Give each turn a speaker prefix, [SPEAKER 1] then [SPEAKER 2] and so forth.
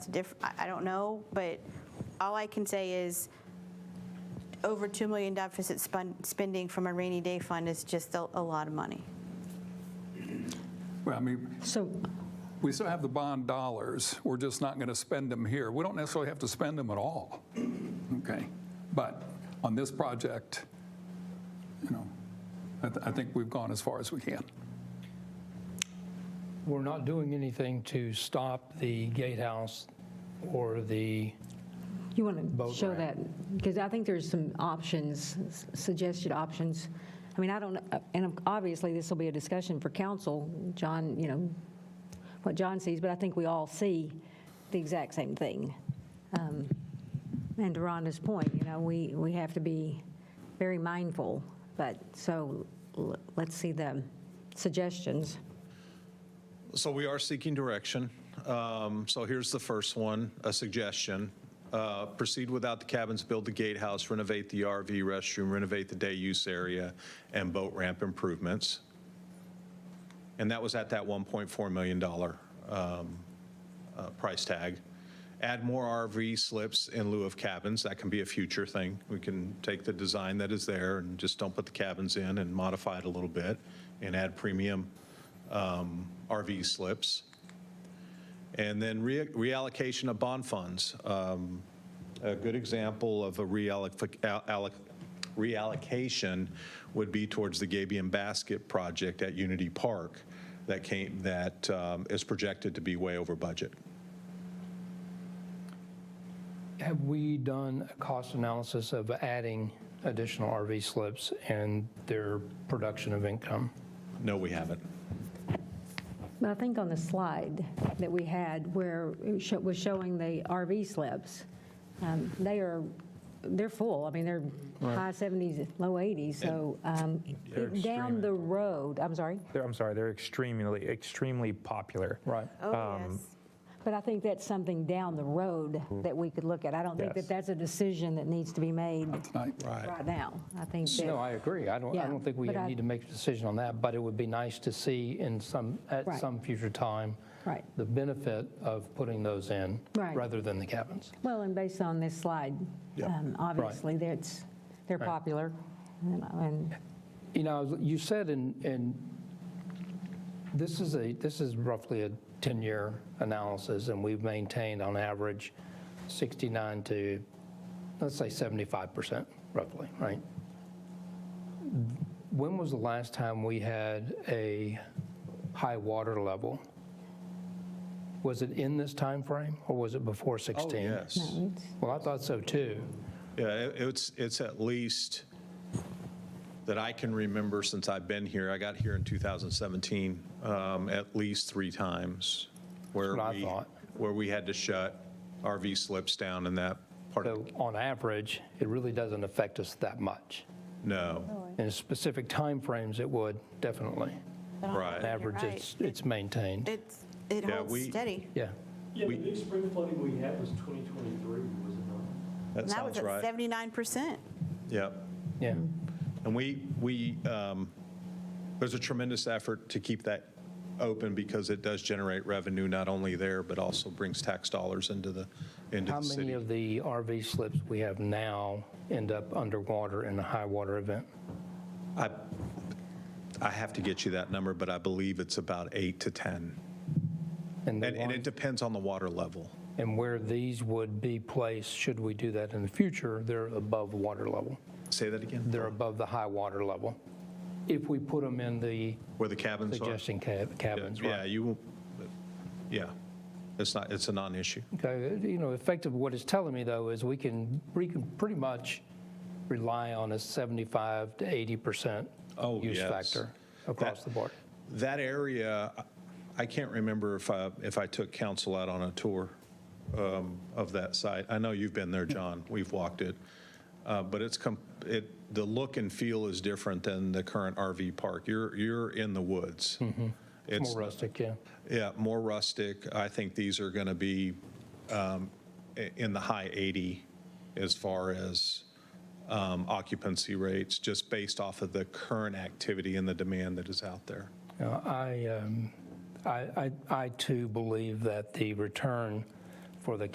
[SPEAKER 1] diff, I- I don't know, but all I can say is over $2 million deficit spun- spending from a rainy day fund is just a a lot of money.
[SPEAKER 2] Well, I mean,
[SPEAKER 3] So,
[SPEAKER 2] we still have the bond dollars. We're just not going to spend them here. We don't necessarily have to spend them at all. Okay? But on this project, you know, I, th- I think we've gone as far as we can.
[SPEAKER 4] We're not doing anything to stop the gatehouse or the,
[SPEAKER 3] you want to
[SPEAKER 4] Boat
[SPEAKER 3] show that,
[SPEAKER 4] ramp.
[SPEAKER 3] because I think there's some options, s- suggested options. I mean, I don't, know, and obviously, this will be a discussion for council, John, you know, what John sees, but I think we all see the exact same thing. Um, And to Rhonda's point, you know, we, we have to be very mindful, but, so, l- let's see the suggestions.
[SPEAKER 5] So we are seeking direction. Um, So here's the first one, a suggestion. Uh, Proceed without the cabins, build the gatehouse, renovate the RV restroom, renovate the day use area, and boat ramp improvements. And that was at that $1.4 million um, uh, price tag. Add more RV slips in lieu of cabins. That can be a future thing. We can take the design that is there and just don't put the cabins in and modify it a little bit and add premium um, RV slips. And then re- reallocation of bond funds. Um, A good example of a realloc- al- alloc- reallocation would be towards the Gabion Basket project at Unity Park that came, that um, is projected to be way over budget.
[SPEAKER 4] have we done a cost analysis of adding additional RV slips and their production of income?
[SPEAKER 5] No, we haven't.
[SPEAKER 3] But I think on the slide that we had where it sho- was showing the RV slips, um, they are, they're full. I mean, they're high 70s, low 80s, so um,
[SPEAKER 6] They're
[SPEAKER 3] down
[SPEAKER 6] extreme.
[SPEAKER 3] the road, I'm sorry,
[SPEAKER 6] They're, I'm sorry, they're extremely, extremely popular.
[SPEAKER 4] Right.
[SPEAKER 1] Oh, yes.
[SPEAKER 3] but I think that's something down the road that we could look at. I don't think that
[SPEAKER 6] Yes.
[SPEAKER 3] that's a decision that needs to be made
[SPEAKER 2] Right?
[SPEAKER 3] right now. I think
[SPEAKER 4] No,
[SPEAKER 3] that,
[SPEAKER 4] I agree. I don't, I
[SPEAKER 3] Yeah,
[SPEAKER 4] don't think we
[SPEAKER 3] but I-
[SPEAKER 4] need to make a decision on that, but it would be nice to see in some, at
[SPEAKER 3] Right.
[SPEAKER 4] some future time,
[SPEAKER 3] right.
[SPEAKER 4] the benefit of putting those in
[SPEAKER 3] Right.
[SPEAKER 4] rather than the cabins.
[SPEAKER 3] Well, and based on this slide, um, obviously, that's, they're popular. and- And
[SPEAKER 4] You know, you said in, in, this is a, this is roughly a 10-year analysis, and we've maintained on average 69 to, let's say 75% roughly, right? When was the last time we had a high water level? Was it in this time frame, or was it before 16?
[SPEAKER 5] Yes.
[SPEAKER 3] no, it's-
[SPEAKER 4] Well, I thought so too.
[SPEAKER 5] Yeah, it- it's, it's at least that I can remember since I've been here, I got here in 2017, um, at least three times where
[SPEAKER 4] That's what I
[SPEAKER 5] we,
[SPEAKER 4] thought.
[SPEAKER 5] where we had to shut RV slips down in that part
[SPEAKER 4] So
[SPEAKER 5] of,
[SPEAKER 4] on average, it really doesn't affect us that much.
[SPEAKER 1] Oh,
[SPEAKER 5] no,
[SPEAKER 4] In specific timeframes, it would, definitely. On
[SPEAKER 5] right.
[SPEAKER 4] average, it's, it's maintained.
[SPEAKER 1] It's, it
[SPEAKER 5] Yeah,
[SPEAKER 1] holds
[SPEAKER 5] we-
[SPEAKER 1] steady.
[SPEAKER 4] Yeah,
[SPEAKER 7] Yeah,
[SPEAKER 5] We-
[SPEAKER 7] the big spring flooding we had was 2023, was it not?
[SPEAKER 5] That
[SPEAKER 1] That was
[SPEAKER 5] sounds
[SPEAKER 1] at
[SPEAKER 5] right.
[SPEAKER 1] 79%.
[SPEAKER 5] Yep.
[SPEAKER 4] yeah.
[SPEAKER 5] And we, we, um, there's a tremendous effort to keep that open because it does generate revenue not only there, but also brings tax dollars into the, into
[SPEAKER 4] How
[SPEAKER 5] the
[SPEAKER 4] many
[SPEAKER 5] city.
[SPEAKER 4] of the RV slips we have now end up underwater in a high water event?
[SPEAKER 5] I, I have to get you that number, but I believe it's about eight to 10.
[SPEAKER 4] And the
[SPEAKER 5] And, and it
[SPEAKER 4] ones-
[SPEAKER 5] depends on the water level.
[SPEAKER 4] and where these would be placed, should we do that in the future, they're above water level.
[SPEAKER 5] Say that again?
[SPEAKER 4] They're above the high water level. If we put them in the
[SPEAKER 5] Where the cabins are?
[SPEAKER 4] suggestion cab- cabins,
[SPEAKER 5] Yeah,
[SPEAKER 4] right?
[SPEAKER 5] you, won't- yeah, it's not, it's a non-issue.
[SPEAKER 4] Okay, uh, you know, effective, what it's telling me though is we can, we can pretty much rely on a 75 to 80%
[SPEAKER 5] Oh,
[SPEAKER 4] use
[SPEAKER 5] yes.
[SPEAKER 4] factor across
[SPEAKER 5] That-
[SPEAKER 4] the board.
[SPEAKER 5] That area, I can't remember if I, if I took council out on a tour um, of that site. I know you've been there, John. We've walked it. Uh, But it's, com- it, the look and feel is different than the current RV park. You're, you're in the woods. It's,
[SPEAKER 4] Mm-hmm. More rustic, yeah.
[SPEAKER 5] yeah, more rustic. I think these are going to be um, i- in the high 80 as far as um, occupancy rates, just based off of the current activity and the demand that is out there.
[SPEAKER 4] You know, I, um, I, I I too believe that the return for the